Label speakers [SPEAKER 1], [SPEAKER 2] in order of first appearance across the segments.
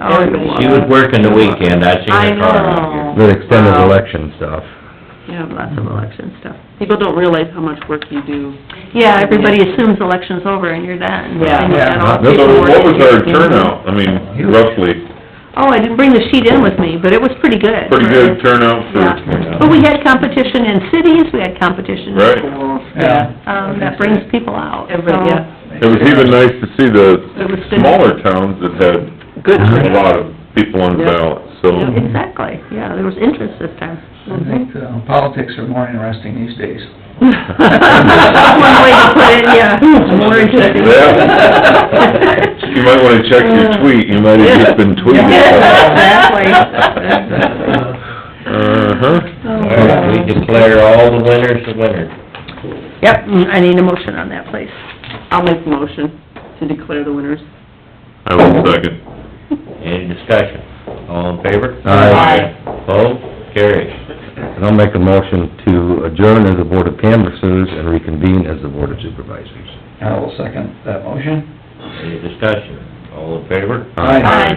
[SPEAKER 1] Oh, you
[SPEAKER 2] She was working the weekend, I seen
[SPEAKER 1] I
[SPEAKER 2] her car out here.
[SPEAKER 1] know.
[SPEAKER 3] The extended
[SPEAKER 1] Wow.
[SPEAKER 3] election stuff.
[SPEAKER 1] You have lots of election stuff. People don't realize how much work you do.
[SPEAKER 4] Yeah, everybody assumes election's over and you're done.
[SPEAKER 1] Yeah.
[SPEAKER 4] And you've got all the
[SPEAKER 5] So
[SPEAKER 4] paperwork.
[SPEAKER 5] what was our turnout, I mean, roughly,
[SPEAKER 4] Oh, I didn't bring the sheet in with me, but it was pretty good.
[SPEAKER 5] pretty good turnout
[SPEAKER 4] Yeah.
[SPEAKER 5] for,
[SPEAKER 4] But we had competition in cities, we had competition in
[SPEAKER 5] Right.
[SPEAKER 4] schools.
[SPEAKER 1] Yeah.
[SPEAKER 4] Um, that brings people out.
[SPEAKER 1] Everybody,
[SPEAKER 4] so-
[SPEAKER 1] yeah.
[SPEAKER 5] it was even nice to see the
[SPEAKER 4] It was good.
[SPEAKER 5] smaller towns that had
[SPEAKER 1] Good.
[SPEAKER 5] a lot of people on the
[SPEAKER 1] Yeah.
[SPEAKER 5] ballot, so.
[SPEAKER 4] Exactly, yeah, there was interest this time.
[SPEAKER 6] I think uh, politics are more interesting these days.
[SPEAKER 4] One way to put it, yeah. More interesting.
[SPEAKER 5] Yeah. You might wanna check your tweet, you might have just been tweeting.
[SPEAKER 4] Exactly.
[SPEAKER 5] Uh-huh.
[SPEAKER 4] Oh,
[SPEAKER 2] All right, We declare all the winners the winners.
[SPEAKER 4] Yep, mm, I need a motion on that, please.
[SPEAKER 1] I'll make the motion to declare the winners.
[SPEAKER 5] I will second.
[SPEAKER 2] Any discussion? All in favor?
[SPEAKER 3] Aye.
[SPEAKER 2] Opposed? Carries.
[SPEAKER 3] And I'll make a motion to adjourn as the Board of Canvassers and reconvene as the Board of Supervisors.
[SPEAKER 6] I will second that motion.
[SPEAKER 2] Any discussion? All in favor?
[SPEAKER 6] Aye.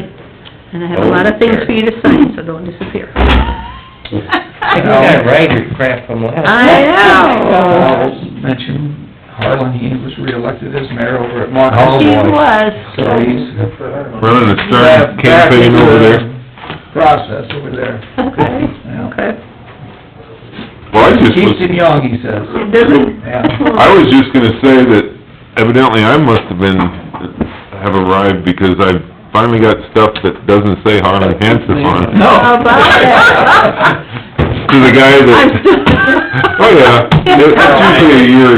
[SPEAKER 4] And I have a lot of things for you to sign, so don't disappear.
[SPEAKER 2] I think I writer's crap from last.
[SPEAKER 4] Oh. I know.
[SPEAKER 6] I'll mention Harlan, he was reelected as mayor over at Mont
[SPEAKER 3] Oh,
[SPEAKER 6] Holly.
[SPEAKER 4] He
[SPEAKER 3] boy.
[SPEAKER 4] was.
[SPEAKER 6] So he's
[SPEAKER 5] Running a stern
[SPEAKER 6] back- back
[SPEAKER 5] campaign
[SPEAKER 6] into
[SPEAKER 5] over
[SPEAKER 6] the
[SPEAKER 5] there.
[SPEAKER 6] Process over there.
[SPEAKER 4] Okay,
[SPEAKER 6] Yeah.
[SPEAKER 4] okay.
[SPEAKER 5] Well, I just
[SPEAKER 6] Keeps him
[SPEAKER 5] was,
[SPEAKER 6] young, he says.
[SPEAKER 4] It doesn't,
[SPEAKER 6] Yeah.
[SPEAKER 5] I was just gonna say that evidently I must have been, have arrived because I finally got stuff that doesn't say Harlan Hanson on it.
[SPEAKER 6] No.
[SPEAKER 4] how about that?
[SPEAKER 5] To the guy that, oh yeah, it's usually a year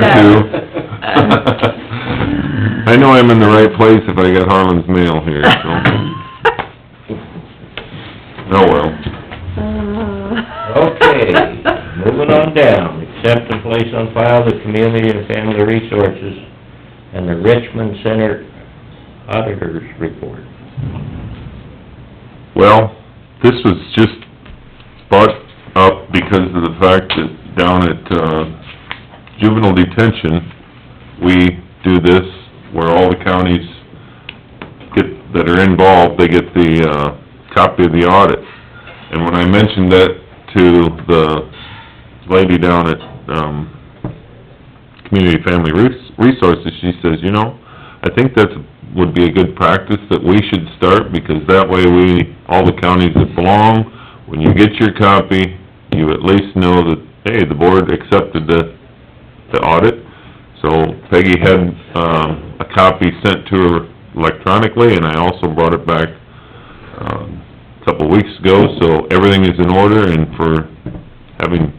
[SPEAKER 5] or two. I know I'm in the right place if I got Harlan's mail here, so, oh well.
[SPEAKER 4] Uh.
[SPEAKER 2] Okay, moving on down, accept and place on file the Community and Family Resources and the Richmond Center Auditors Report.
[SPEAKER 5] Well, this was just brought up because of the fact that down at, uh, juvenile detention, we do this where all the counties get, that are involved, they get the, uh, copy of the audit. And when I mentioned that to the lady down at, um, Community Family Res- Resources, she says, you know, I think that's, would be a good practice that we should start, because that way we, all the counties that belong, when you get your copy, you at least know that, hey, the board accepted the, the audit. So Peggy had, um, a copy sent to her electronically, and I also brought it back, um, a couple of weeks ago, so everything is in order, and for having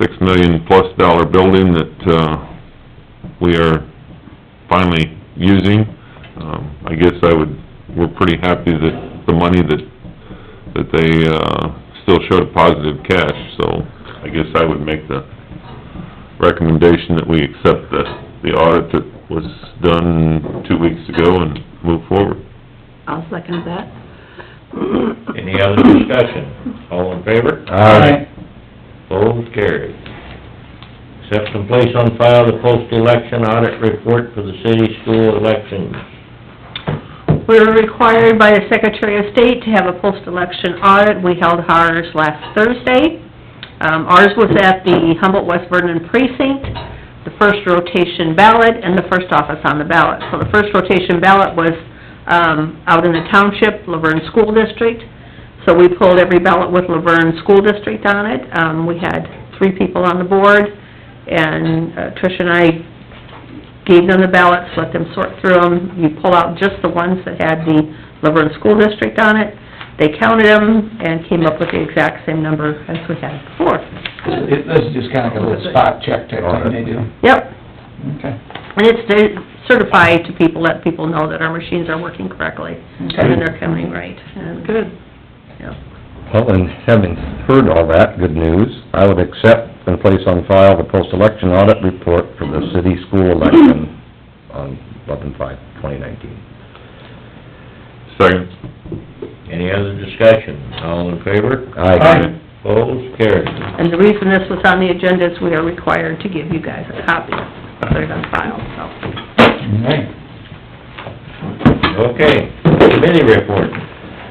[SPEAKER 5] six million plus dollar building that, uh, we are finally using. Um, I guess I would, we're pretty happy that the money that, that they, uh, still showed positive cash, so I guess I would make the recommendation that we accept the, the audit that was done two weeks ago and move forward.
[SPEAKER 1] I'll second that.
[SPEAKER 2] Any other discussion? All in favor?
[SPEAKER 3] Aye.
[SPEAKER 2] Both carried. Accept and place on file the post-election audit report for the city school election.
[SPEAKER 4] We're required by the Secretary of State to have a post-election audit. We held ours last Thursday. Um, ours was at the Humboldt West Vernon precinct, the first rotation ballot and the first office on the ballot. So the first rotation ballot was, um, out in the township, Laverne School District. So we pulled every ballot with Laverne School District on it. Um, we had three people on the board and uh, Trish and I gave them the ballots, let them sort through them. You pull out just the ones that had the Laverne School District on it. They counted them and came up with the exact same number as we had before.
[SPEAKER 6] It- This is just kind of like a little spot check type thing they do.
[SPEAKER 4] Yep,
[SPEAKER 6] Okay.
[SPEAKER 4] and it's to certify to people, let people know that our machines are working correctly and that
[SPEAKER 6] Okay.
[SPEAKER 4] they're counting right. And
[SPEAKER 1] Good.
[SPEAKER 3] Well, and having heard all that good news, I would accept and place on file the post-election audit report for the city school election on eleven five, twenty nineteen.
[SPEAKER 5] Second.
[SPEAKER 2] Any other discussion? All in favor?
[SPEAKER 3] Aye.
[SPEAKER 2] Both carried.
[SPEAKER 4] And the reason this was on the agenda is we are required to give you guys a copy, put it on file, so.
[SPEAKER 6] All right.
[SPEAKER 2] Okay, committee report.